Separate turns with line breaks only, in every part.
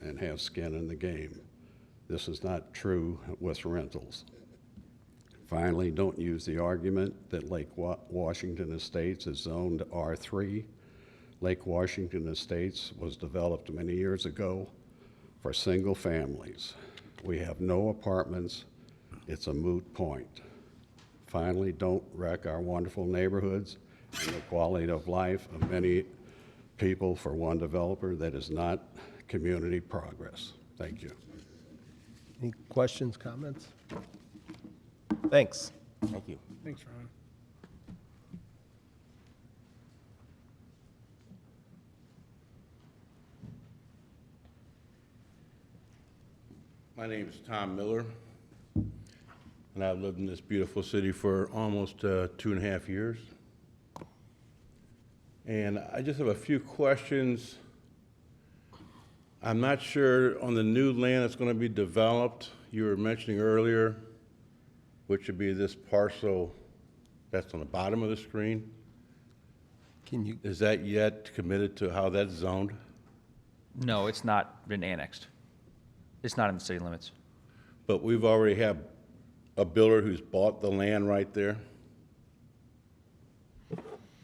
doesn't have skin in the game. This is not true with rentals. Finally, don't use the argument that Lake Wa- Washington Estates is zoned R3. Lake Washington Estates was developed many years ago for single families. We have no apartments. It's a moot point. Finally, don't wreck our wonderful neighborhoods and the quality of life of many people for one developer. That is not community progress. Thank you.
Any questions, comments? Thanks.
Thank you.
Thanks, Ron.
My name is Tom Miller, and I've lived in this beautiful city for almost uh, two and a half years. And I just have a few questions. I'm not sure on the new land that's going to be developed, you were mentioning earlier, which would be this parcel that's on the bottom of the screen.
Can you,
Is that yet committed to how that's zoned?
No, it's not been annexed. It's not in the city limits.
But we've already had a builder who's bought the land right there.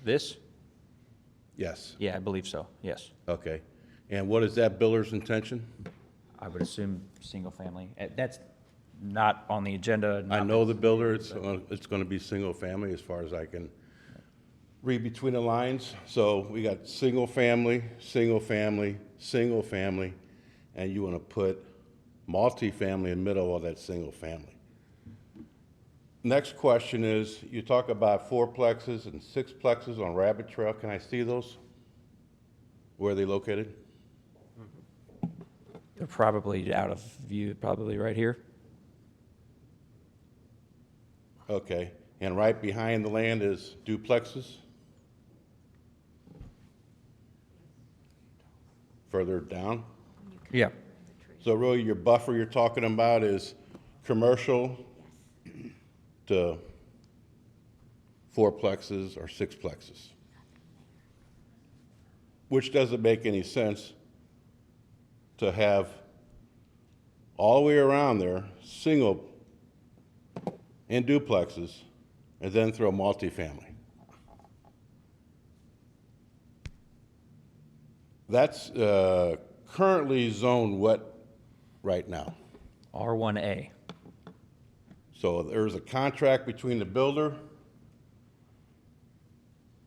This?
Yes.
Yeah, I believe so, yes.
Okay. And what is that builder's intention?
I would assume single-family. That's not on the agenda.
I
not-
know the builder, it's, uh, it's going to be single-family as far as I can read between the lines. So we got single-family, single-family, single-family, and you want to put multifamily in the middle of all that single-family. Next question is, you talk about fourplexes and sixplexes on Rabbit Trail. Can I see those? Where are they located?
They're probably out of view, probably right here.
Okay, and right behind the land is duplexes? Further down?
Yeah.
So really, your buffer you're talking about is commercial to fourplexes or sixplexes? Which doesn't make any sense to have all the way around there, single and duplexes, and then throw multifamily. That's uh, currently zoned what right now?
R1A.
So there's a contract between the builder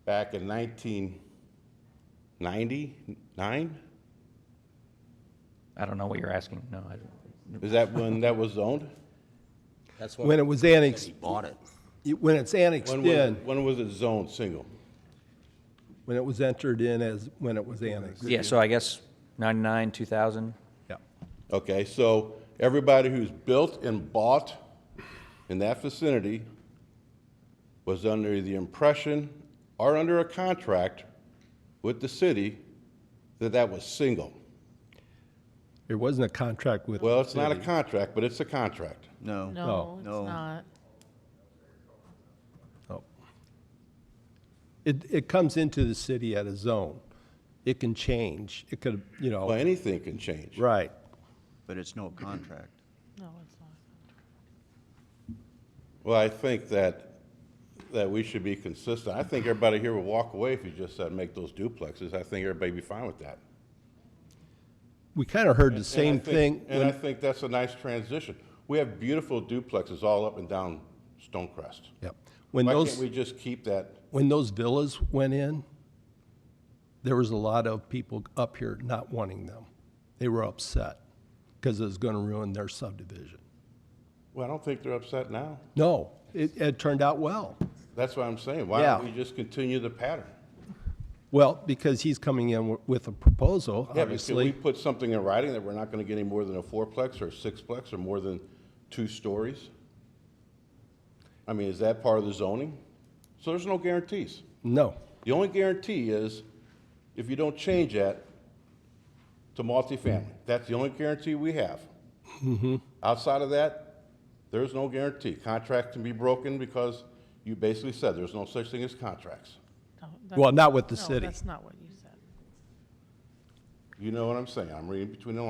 back in 1999?
I don't know what you're asking, no. I don't-
Is that when that was zoned?
That's
when
when
it was annexed,
he bought it.
it- when it's annexed
When was it-
in,
When was it zoned single?
when it was entered in as, when it was annexed.
Yeah, so I guess 99, 2000,
Yeah.
Okay, so everybody who's built and bought in that vicinity was under the impression or under a contract with the city that that was single.
There wasn't a contract with.
Well, it's not a contract, but it's a contract.
No.
No.
No, it's
No.
not.
Oh. It, it comes into the city at a zone. It can change. It could, you
Well,
know,
anything can change.
right.
But it's no contract.
No, it's not.
Well, I think that, that we should be consistent. I think everybody here would walk away if you just said make those duplexes. I think everybody'd be fine with that.
We kind of heard the
And
same
I
thing.
think- And I
when-
think that's a nice transition. We have beautiful duplexes all up and down Stonecrest.
Yep. When
Why
those.
can't we just keep that?
when those villas went in, there was a lot of people up here not wanting them. They were upset because it was going to ruin their subdivision.
Well, I don't think they're upset now.
No, it, it turned out well.
That's what I'm saying. Why don't
Yeah.
we just continue the pattern?
Well, because he's coming in wi- with a proposal,
Yeah, but can we
obviously.
put something in writing that we're not going to get any more than a fourplex or a sixplex or more than two stories? I mean, is that part of the zoning? So there's no guarantees.
No,
The only guarantee is if you don't change that to multifamily. That's the only guarantee we have. Outside of that, there's no guarantee. Contracts can be broken because you basically said there's no such thing as contracts.
No,
well,
that's-
not with the
no,
city.
that's not what you said.
You know what I'm saying? I'm reading between the lines.